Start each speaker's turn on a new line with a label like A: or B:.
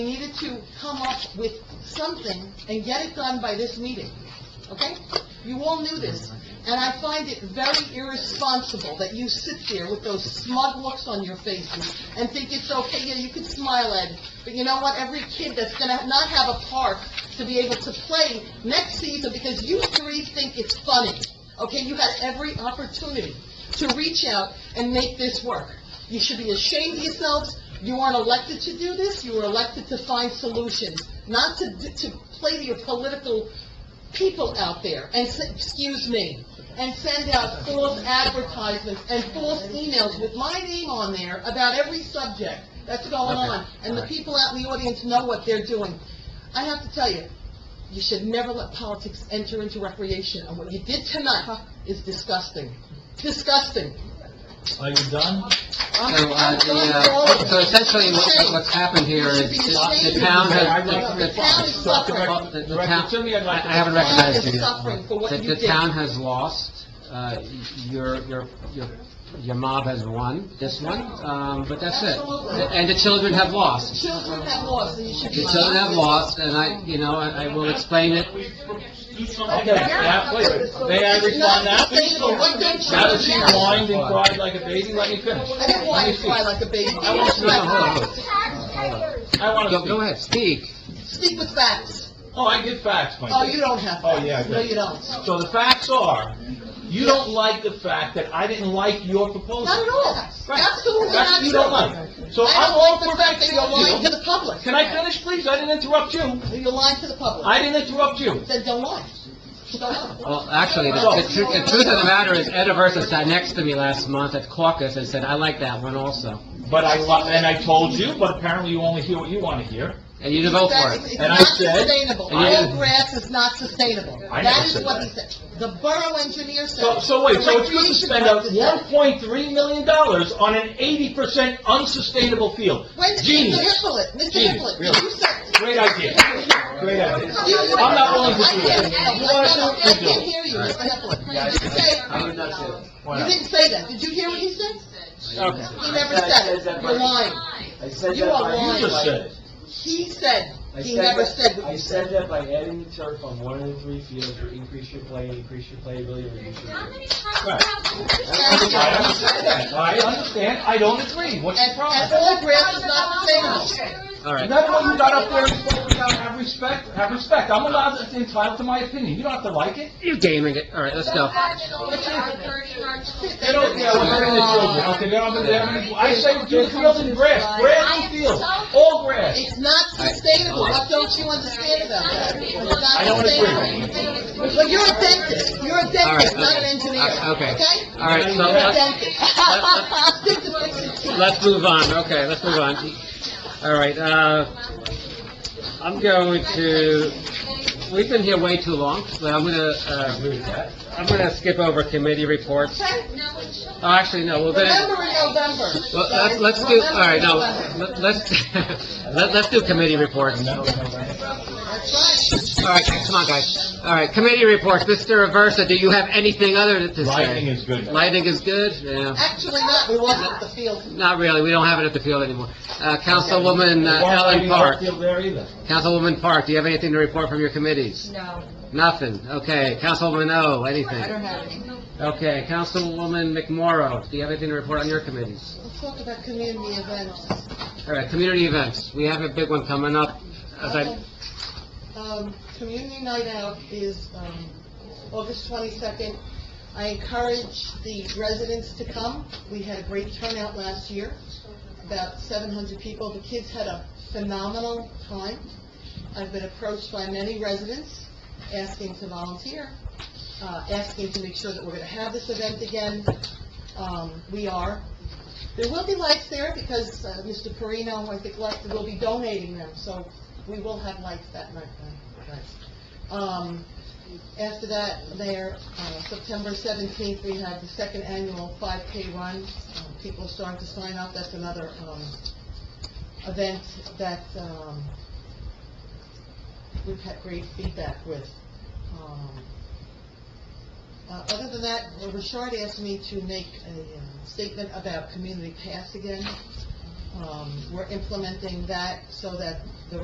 A: We needed to come up with something and get it done by this meeting, okay? You all knew this, and I find it very irresponsible that you sit there with those smug looks on your faces and think it's okay, yeah, you can smile, Ed, but you know what? Every kid that's gonna not have a park to be able to play next season because you three think it's funny, okay? You had every opportunity to reach out and make this work. You should be ashamed of yourselves. You aren't elected to do this. You were elected to find solutions, not to, to play to your political people out there and, s- excuse me, and send out false advertisements and false emails with my name on there about every subject that's going
B: Okay.
A: on. And the
B: All right.
A: people out in the audience know what they're doing. I have to tell you, you should never let politics enter into recreation. And what you did tonight is disgusting. Disgusting.
B: Are you done?
A: I'm-
B: So, uh,
A: I'm
B: the,
A: done with all
B: uh,
A: of
B: so
A: it.
B: essentially, what-
A: Shame.
B: what's happened here
A: You should
B: is,
A: be
B: is
A: ashamed
B: the
A: of
B: town has,
A: yourself.
B: the,
A: The town is
B: the-
A: suffering.
B: the, the town,
C: Director Timmy, I'd like to-
B: I I haven't
A: The town
B: recognized
A: is
B: you yet.
A: suffering for what
B: The-
A: you
B: The
A: did.
B: town has lost, uh, your, your, your, your mob has won this one, um, but that's it.
A: Absolutely.
B: And the children have lost.
A: Children have lost, and you should be...
B: The children have
A: ashamed.
B: lost, and I, you know, I I will explain it.
C: Do something.
D: Okay, yeah, wait, may I respond now?
A: It's not sustainable. What they're
C: Now that she
A: doing now-
C: whined and cried like a baby, let me finish.
A: I didn't want you to cry like a baby.
C: I want
B: No, no, hold on, hold
D: Taxpayers.
C: I
B: on.
C: want to
B: Go, go
C: speak.
B: ahead, speak.
A: Speak with facts.
C: Oh, I get facts, my
A: Oh,
C: dear.
A: you don't have
C: Oh,
A: facts.
C: yeah, I do.
A: No, you don't.
C: So the facts are, you don't like the fact that I didn't like your proposal.
A: Not at all.
C: Right.
A: Absolutely
C: That's
A: not
C: what you
A: true.
C: don't like. So
A: I
C: I'm
A: don't
C: all
A: like
C: for
A: the fact that
C: fixing
A: you're lying to
C: you.
A: the public.
C: Can I finish, please? I didn't interrupt you.
A: You're lying to the public.
C: I Oh, didn't interrupt you.
A: Then don't lie. Don't lie.
B: Well, actually, the, the tru- the truth of the matter is, Ed Aversa sat next to me last month at caucus and said, "I like that one also,"
C: But I, lo- and I told you, but apparently you only hear what you want to hear.
B: and you didn't vote for
A: That's-
B: it.
A: It's
C: And I
A: not
C: said-
A: sustainable.
B: and you-
A: All grass is not sustainable.
C: I never
A: That is
C: said
A: what
C: that.
A: he said. The borough engineer said.
C: So, so wait, so it's good to
A: Recreation
C: spend out
A: Board
C: one
A: said-
C: point three million dollars on an eighty percent unsustainable field?
A: Wait, Mr.
C: Genius,
A: Hippolyte, Mr.
C: Genius,
A: Hippolyte,
C: really.
A: you said.
C: great idea, great idea.
A: you-
C: I'm not willing to do
A: I
C: that.
A: can't-
C: You wanna do
A: I
C: it, you do
A: can't
C: it.
A: hear you, Mr. Hippolyte. You didn't say, you didn't say that. Did you hear what he said?
C: Okay.
A: He never said it. You're lying.
E: I said
A: You
E: that
A: are
E: by-
A: lying.
C: You just said it.
A: He said,
E: I
A: he
E: said
A: never
E: that-
A: said what
E: I
A: you
E: said
A: said.
E: that by adding the turf on one of the three fields, you increase your play, increase your playability, reduce your.
D: How many times
C: Right.
D: have
A: Thank
D: you-
A: you.
C: I understand that. I understand. I don't agree. What's the
A: And, and
C: problem?
A: all grass is not sustainable.
B: All right.
C: That's why you got up there and spoke without have respect, have respect. I'm allowed, to- entitled to my opinion. You don't have to like it.
B: You're gaming it. All right, let's go.
C: They don't care what happened to the children, okay? They don't, they don't, I say do the field in grass, grass and field, all grass.
A: It's not sustainable. What don't you understand about that? It's not
C: I don't
A: sustainable.
C: agree.
A: But you're a dentist. You're a
B: All right,
A: dentist, not an
B: okay.
A: engineer,
B: Uh, okay.
A: okay?
B: All right, so
A: You're a
B: let's,
A: dentist.
B: let-
A: Stick to fixing teeth.
B: let's move on. Okay, let's move on. All right, uh, I'm going to, we've been here way too long, so I'm gonna, uh,
C: Agree with that.
B: I'm gonna skip over committee reports.
A: Okay?
B: Oh, actually, no, we're gonna,
A: Remember in November.
B: well, let's, let's do, all right, no, let- let's, let- let's do committee reports. All
A: That's right.
B: right, come on, guys. All right, committee reports. Mr. Aversa, do you have anything other to say?
C: Lighting is good.
B: Lighting is good, yeah.
A: Actually not, we wasn't at the field.
B: Not really, we don't have it at the field anymore. Uh, Councilwoman uh, Ellen Park,
C: Field there either.
B: Councilwoman Park, do you have anything to report from your committees?
F: No,
B: Nothing, okay. Councilwoman O,
F: I
B: anything?
F: don't have any.
B: Okay, Councilwoman McMorro, do you have anything to report on your committees?
A: Let's talk about community events.
B: All right, community events, we have a big one coming up. As I,
A: Um, Community Night Out is, um, August twenty-second. I encourage the residents to come. We had a great turnout last year, about seven hundred people. The kids had a phenomenal time. I've been approached by many residents asking to volunteer, uh, asking to make sure that we're gonna have this event again. Um, we are. There will be lights there because, uh, Mr. Perino, I think, left, will be donating them, so we will have lights that night. right? Um, after that, there, uh, September seventeenth, we have the second annual five K run. Uh, People are starting to sign up, that's another, um, event that, um, we've had great feedback with. Um, uh, Other than that, um, Richard asked me to make a uh, statement about community pass again. Um, We're implementing that so that the